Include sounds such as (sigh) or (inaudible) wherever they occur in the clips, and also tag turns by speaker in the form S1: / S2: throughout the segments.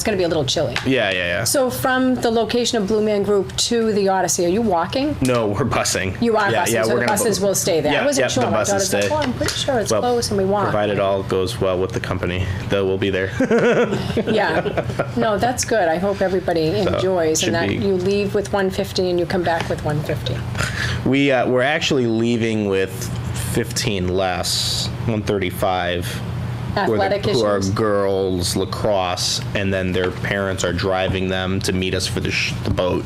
S1: It's going to be a little chilly.
S2: Yeah, yeah, yeah.
S1: So from the location of Blue Man Group to the Odyssey, are you walking?
S2: no, we're busing.
S1: You are
S2: yeah,
S1: busing,
S2: Yeah,
S1: so the
S2: we're gonna
S1: buses
S2: bu-
S1: will stay there.
S2: Yeah,
S1: I wasn't
S2: yeah,
S1: sure.
S2: The
S1: My
S2: buses
S1: daughter's like,
S2: stay.
S1: "Well, I'm pretty sure it's
S2: Well,
S1: close and we want."
S2: Provided all goes well with the company, though we'll be there. (laughs)
S1: Yeah. No, that's good. I hope everybody enjoys
S2: should
S1: and that
S2: be-
S1: you leave with 150 and you come back with 150.
S2: we uh, we're actually leaving with 15 less, 135. who are the-
S1: Athletic
S2: Who are
S1: issues.
S2: girls lacrosse, and then their parents are driving them to meet us for the, sh- the boat.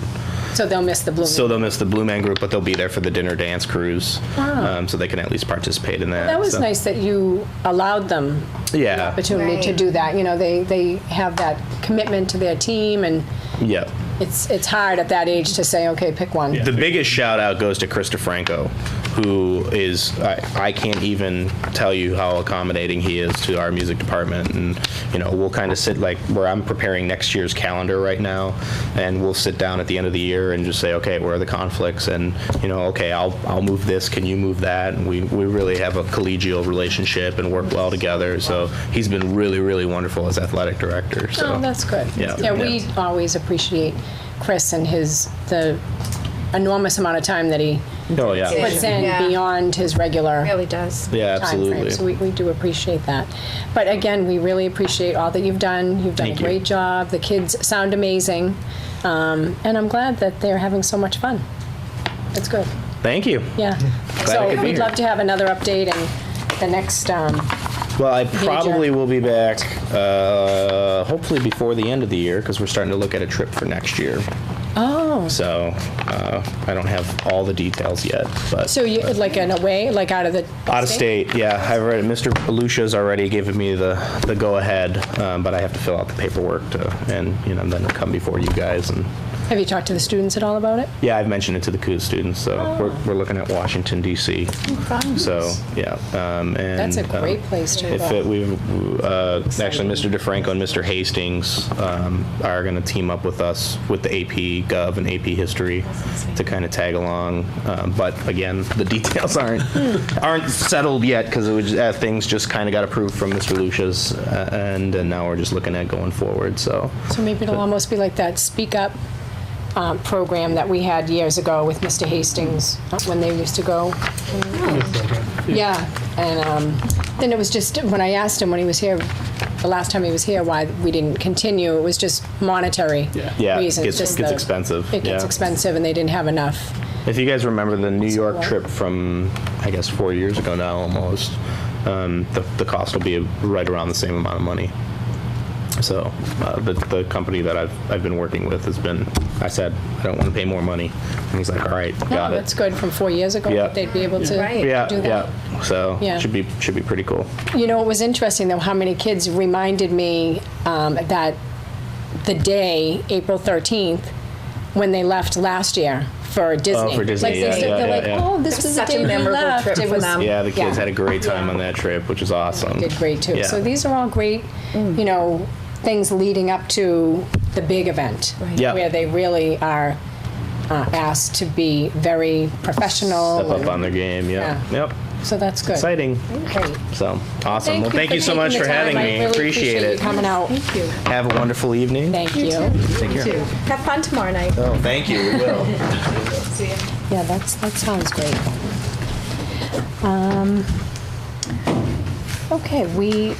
S1: So they'll miss the Blue
S2: So
S1: Man.
S2: they'll miss the Blue Man Group, but they'll be there for the dinner dance cruise,
S1: Ah.
S2: um, so they can at least participate in that.
S1: That was
S2: so-
S1: nice that you allowed them
S2: Yeah.
S1: opportunity to
S3: Right.
S1: do that. You know, they, they have that commitment to their team and
S2: Yeah.
S1: it's, it's hard at that age to say, okay, pick one.
S2: The biggest shout out goes to Krista Franco, who is I, I can't even tell you how accommodating he is to our music department, and you know we'll kind of sit like where I'm preparing next year's calendar right now, and we'll sit down at the end of the year and just say, okay, where are the conflicts, and you know, okay, I'll I'll move this, can you move that, and we we really have a collegial relationship and work well together. So he's been really really wonderful as athletic director. So
S1: Oh, that's good.
S2: Yeah.
S1: Yeah, we always appreciate Chris and his, the enormous amount of time that he
S2: oh yeah.
S3: Yeah.
S1: puts in
S3: Yeah.
S1: beyond his regular.
S3: Really does.
S2: Yeah, absolutely.
S1: timeframe, so we, we do appreciate that. But again, we really appreciate all that you've done. You've done
S2: Thank
S1: a
S2: you.
S1: great job. The kids sound amazing. Um, and I'm glad that they're having so much fun. It's good.
S2: Thank you.
S1: Yeah.
S2: I
S1: so
S2: could be
S1: we'd
S2: here.
S1: love to have another update and the next, um,
S2: Well, I probably will be back, uh, hopefully before the end of the year, because we're starting to look at a trip for next year.
S1: oh.
S2: So uh, I don't have all the details yet, but
S1: So you, like an away, like out of the.
S2: out of state, yeah, I've read it. Mr. Lucia's already given me the, the go ahead, um, but I have to fill out the paperwork to, and you know, then come before you guys. And
S1: Have you talked to the students at all about it?
S2: yeah, I've mentioned it to the KU students, so we're, we're looking at Washington D.C. So yeah, um, and
S1: Oh, That's a
S2: um,
S1: great place to
S2: If it,
S1: go.
S2: we've, uh, actually, Mr. DeFranco and Mr. Hastings um, are going to team up with us with the AP Gov and AP History to kind of tag along. Um, But again, the (laughs) details aren't, aren't settled yet because it was, uh, things just kind of got approved from Mr. Lucia's uh, end, and now we're just looking at going forward, so.
S1: So maybe it'll almost be like that Speak Up um, program that we had years ago with Mr. Hastings uh, when they used to go. Yeah, and um, then it was just when I asked him when he was here, the last time he was here, why we didn't continue. It was just monetary
S2: Yeah, it
S1: reasons.
S2: gets
S1: just
S2: gets
S1: the-
S2: expensive.
S1: It gets
S2: yeah.
S1: expensive, and they didn't have enough.
S2: If you guys remember the New York
S1: Right.
S2: trip from, I guess, four years ago now almost, um, the, the cost will be right around the same amount of money. So uh, the, the company that I've, I've been working with has been, I said, I don't want to pay more money. And he's like, all right, got
S1: no,
S2: it.
S1: that's good from four years ago.
S2: Yeah.
S1: that They'd be able to
S3: Right.
S2: Yeah,
S1: do that.
S2: yeah. So
S1: Yeah.
S2: should be should be pretty cool.
S1: You know, it was interesting though how many kids reminded me um, that the day, April 13th, when they left last year for Disney.
S2: Oh, for Disney,
S1: Like,
S2: yeah,
S1: they said-
S2: yeah,
S1: they're
S2: yeah,
S1: like,
S2: yeah.
S1: oh, this
S3: It's
S1: was the
S3: such
S1: day
S3: a
S1: we
S3: memorable
S1: left.
S3: trip
S1: It
S3: for
S1: was-
S3: them.
S2: Yeah, the kids
S1: Yeah.
S2: had a great time on that trip, which is awesome.
S1: Did great too.
S2: Yeah.
S1: So these are all great,
S3: Mm.
S1: you know, things leading up to the big event.
S2: Yeah.
S1: Where they really are uh, asked to be very professional.
S2: Step up
S1: and-
S2: on their game. Yeah. Yep.
S1: So that's good.
S2: Exciting.
S1: Great.
S2: So awesome. well, thank you so
S1: taking
S2: much
S1: the
S2: for
S1: time.
S2: having
S1: I
S2: me.
S1: really
S2: appreciate,
S1: you
S2: it.
S1: Coming out.
S3: Thank you.
S2: Have a wonderful evening.
S1: Thank you.
S2: Take care.
S3: Too. Have fun tomorrow night.
S2: Oh, thank you. We will.
S3: See ya.
S1: Yeah, that's, that sounds great. Um, okay, we,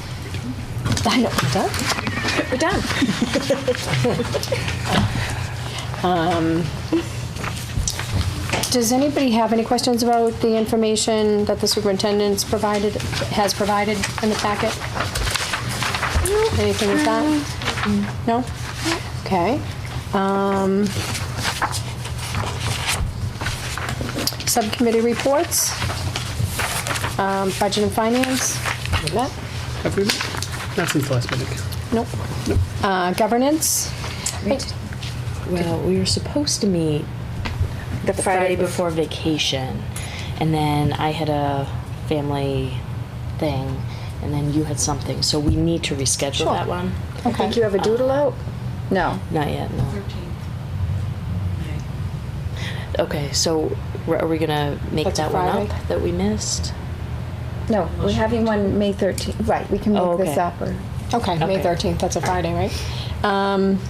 S1: I know, we're done?
S3: We're done.
S1: (laughs) Um, Does anybody have any questions about the information that the superintendent's provided, has provided in the packet? Anything like that? No? Okay. Um, Subcommittee reports? Um, Budget and finance? That?
S4: Have we met? Not since last meeting.
S1: Nope. Uh, Governance?
S5: Well, we were supposed to meet
S3: The
S5: the Friday before vacation, and then I had a family thing, and then you had something, so we need to reschedule that one.
S3: I think you have a doodle out? No.
S5: Not yet, no. Okay, so r- are we gonna make
S1: That's a
S5: that one
S1: Friday.
S5: up that we missed?
S3: No, we're having one May 13th. Right, we can
S5: Oh,
S3: make this
S5: okay.
S3: up or.
S1: Okay, May
S5: Okay.
S1: 13th, that's a Friday, right? Um,